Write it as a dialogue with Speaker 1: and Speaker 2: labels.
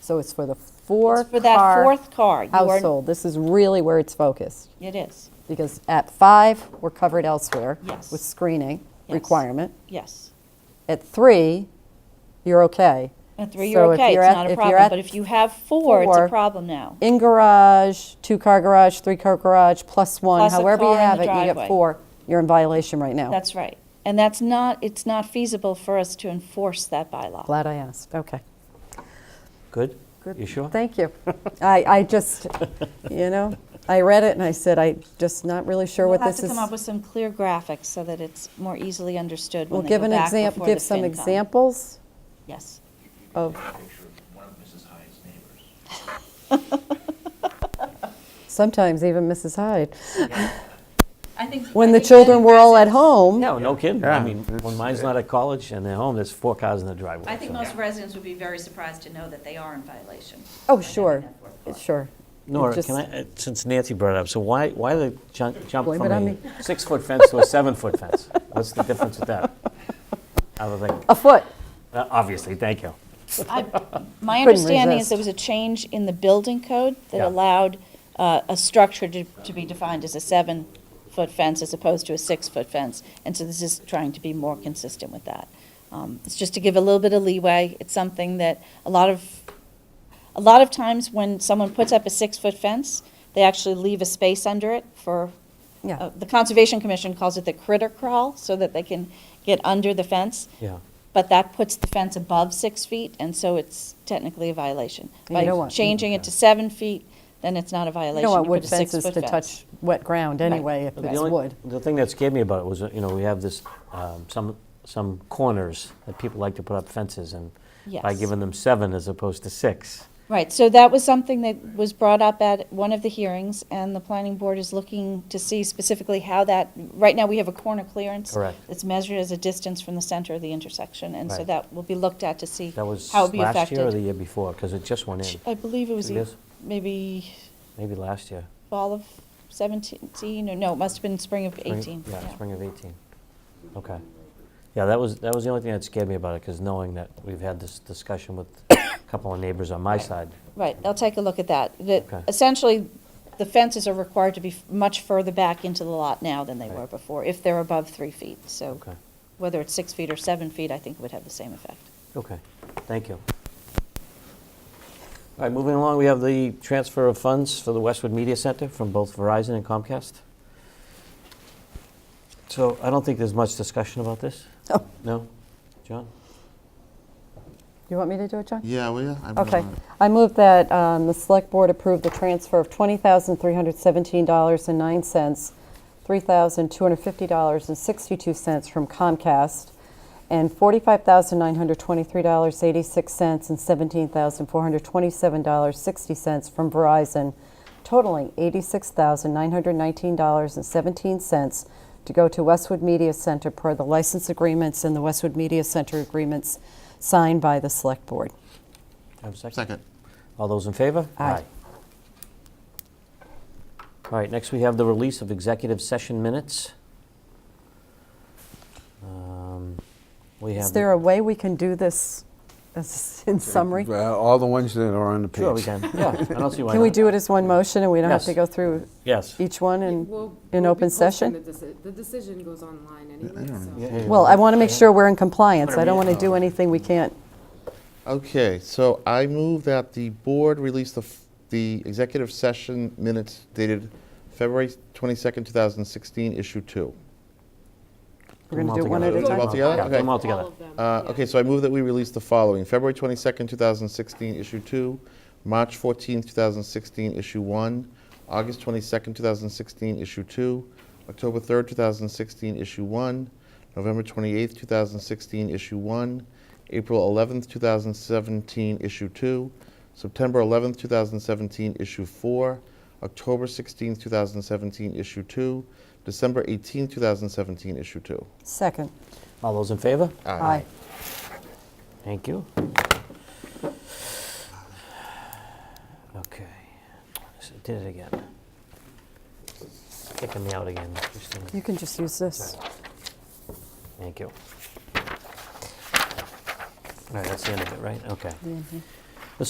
Speaker 1: So it's for the four-car.
Speaker 2: for that fourth car. You are-
Speaker 1: Household. This is really where it's focused,
Speaker 2: It is,
Speaker 1: because at five, we're covered elsewhere.
Speaker 2: Yes.
Speaker 1: With screening
Speaker 2: Yes.
Speaker 1: requirement.
Speaker 2: yes.
Speaker 1: At three, you're okay.
Speaker 2: At three,
Speaker 1: So
Speaker 2: you're
Speaker 1: if
Speaker 2: okay, it's
Speaker 1: at-
Speaker 2: not
Speaker 1: if
Speaker 2: a
Speaker 1: you're
Speaker 2: problem,
Speaker 1: at
Speaker 2: but if you have four, it's
Speaker 1: four,
Speaker 2: a problem now.
Speaker 1: In garage, two-car garage, three-car garage, plus one,
Speaker 2: Plus a
Speaker 1: however you
Speaker 2: car in
Speaker 1: have
Speaker 2: the
Speaker 1: it, you get
Speaker 2: driveway.
Speaker 1: four, you're in violation right now.
Speaker 2: That's right. And that's not, it's not feasible for us to enforce that bylaw.
Speaker 1: Glad I asked, okay.
Speaker 3: Good? You sure?
Speaker 1: Thank you. I, I just, you know, I read it and I said, I'm just not really sure
Speaker 2: We'll
Speaker 1: what
Speaker 2: have
Speaker 1: this
Speaker 2: to
Speaker 1: is.
Speaker 2: come up with some clear graphics so that it's more easily understood
Speaker 1: Well,
Speaker 2: when they
Speaker 1: give
Speaker 2: go
Speaker 1: an
Speaker 2: back
Speaker 1: example,
Speaker 2: before
Speaker 1: give
Speaker 2: the
Speaker 1: some
Speaker 2: FinCom.
Speaker 1: examples
Speaker 2: Yes.
Speaker 3: Oh.
Speaker 1: of,
Speaker 4: picture of one of Mrs. Hyde's neighbors.
Speaker 1: sometimes even Mrs. Hyde.
Speaker 2: I think.
Speaker 1: When the children were all at home,
Speaker 3: No, no kidding. I
Speaker 5: Yeah,
Speaker 3: mean, when
Speaker 5: it's-
Speaker 3: mine's not at college and they're home, there's four cars in the driveway.
Speaker 6: I think
Speaker 3: so-
Speaker 6: most residents would be very surprised to know that they are in violation. by
Speaker 1: oh,
Speaker 6: having
Speaker 1: sure,
Speaker 6: that fourth floor.
Speaker 1: sure. It
Speaker 3: Nora,
Speaker 1: just-
Speaker 3: can I, uh, since Nancy brought it up, so why, why the jump, jump
Speaker 1: Blame
Speaker 3: from
Speaker 1: it on
Speaker 3: a
Speaker 1: me.
Speaker 3: six-foot fence to a seven-foot fence? What's the difference with that? Other than,
Speaker 1: A foot,
Speaker 3: uh, obviously, thank you.
Speaker 2: My
Speaker 1: Couldn't
Speaker 2: understanding is there
Speaker 1: resist.
Speaker 2: was a change in the building code that
Speaker 3: Yeah.
Speaker 2: allowed uh, a structure to, to be defined as a seven-foot fence as opposed to a six-foot fence. And so this is trying to be more consistent with that. Um, It's just to give a little bit of leeway. It's something that a lot of, a lot of times when someone puts up a six-foot fence, they actually leave a space under it for,
Speaker 1: Yeah.
Speaker 2: uh, the Conservation Commission calls it the critter crawl, so that they can get under the fence.
Speaker 3: Yeah.
Speaker 2: But that puts the fence above six feet, and so it's technically a violation.
Speaker 1: You don't
Speaker 2: By
Speaker 1: want-
Speaker 2: changing it to seven feet, then it's not a
Speaker 1: you
Speaker 2: violation.
Speaker 1: don't want
Speaker 2: You
Speaker 1: wood
Speaker 2: put a
Speaker 1: fences
Speaker 2: six-foot
Speaker 1: to
Speaker 2: fence.
Speaker 1: touch wet ground anyway, if
Speaker 3: The
Speaker 1: it's
Speaker 3: only-
Speaker 1: wood.
Speaker 3: The thing that scared me about it was, uh, you know, we have this, um, some, some corners that people like to put up fences and by
Speaker 2: Yes.
Speaker 3: giving them seven as opposed to six.
Speaker 2: Right, so that was something that was brought up at one of the hearings, and the planning board is looking to see specifically how that, right now, we have a corner clearance.
Speaker 3: Correct.
Speaker 2: It's measured as a distance from the center of the intersection, and so
Speaker 3: Right.
Speaker 2: that will be looked at to see
Speaker 3: That was
Speaker 2: how it would be
Speaker 3: last year or the
Speaker 2: affected.
Speaker 3: year before, because it just went in,
Speaker 2: I believe it was
Speaker 3: Two
Speaker 2: e-
Speaker 3: years?
Speaker 2: maybe
Speaker 3: maybe last year.
Speaker 2: fall of 17, or no, it must have been spring of
Speaker 3: Spring-
Speaker 2: 18.
Speaker 3: Yeah, spring of 18. Okay. Yeah, that was, that was the only thing that scared me about it, because knowing that we've had this discussion with a couple of neighbors on my side.
Speaker 2: Right, I'll take a look at that. That
Speaker 3: Okay.
Speaker 2: essentially, the fences are required to be f- much further back into the lot now than they
Speaker 3: Right.
Speaker 2: were before, if they're above three feet. So
Speaker 3: Okay.
Speaker 2: whether it's six feet or seven feet, I think it would have the same effect.
Speaker 3: Okay, thank you. All right, moving along, we have the transfer of funds for the Westwood Media Center from both Verizon and Comcast. So I don't think there's much discussion about this.
Speaker 1: Oh.
Speaker 3: No? John?
Speaker 1: You want me to do it, John?
Speaker 5: Yeah, well, yeah. I'm
Speaker 1: Okay.
Speaker 5: gonna-
Speaker 1: I move that um, the Select Board approve the transfer of $20,317.09, $3,250.62 from Comcast, and $45,923.86 and $17,427.60 from Verizon, totaling $86,919.17 to go to Westwood Media Center per the license agreements and the Westwood Media Center agreements signed by the Select Board.
Speaker 3: Have a second?
Speaker 5: Second.
Speaker 3: All those in favor?
Speaker 1: Aye.
Speaker 3: All right, next we have the release of executive session minutes. Um, We have.
Speaker 1: Is there a way we can do this as- in summary?
Speaker 5: Uh, All the ones that are on the page.
Speaker 3: Sure, we can, yeah, I don't see why not.
Speaker 1: Can we do it as one motion and we don't have to
Speaker 3: Yes.
Speaker 1: go through
Speaker 3: Yes.
Speaker 1: each one in,
Speaker 7: We'll-
Speaker 1: in
Speaker 7: we'll be
Speaker 1: open
Speaker 7: posting
Speaker 1: session?
Speaker 7: The deci- the decision goes online anyway, so.
Speaker 1: Well, I want to make sure we're in compliance.
Speaker 3: Whatever
Speaker 1: I don't
Speaker 3: you-
Speaker 1: want to do anything we can't.
Speaker 8: Okay, so I move that the board release the, f- the executive session minutes dated February 22nd, 2016, issue two.
Speaker 1: We're going to do one at a
Speaker 8: Do them all
Speaker 1: time.
Speaker 8: together?
Speaker 3: Yeah, do them all
Speaker 8: Okay.
Speaker 3: together.
Speaker 7: All of them,
Speaker 8: Uh,
Speaker 7: yeah.
Speaker 8: Okay, so I move that we release the following, February 22nd, 2016, issue two, March 14th, 2016, issue one, August 22nd, 2016, issue two, October 3rd, 2016, issue one, November 28th, 2016, issue one, April 11th, 2017, issue two, September 11th, 2017, issue four, October 16th, 2017, issue two, December 18th, 2017, issue two.
Speaker 1: Second.
Speaker 3: All those in favor?
Speaker 1: Aye.
Speaker 3: Thank you. Okay, So I did it again. Kicking me out again. Just a minute.
Speaker 1: You can just use this. Mm-hmm.
Speaker 3: Thank you. All right, that's the end of it, right? Okay.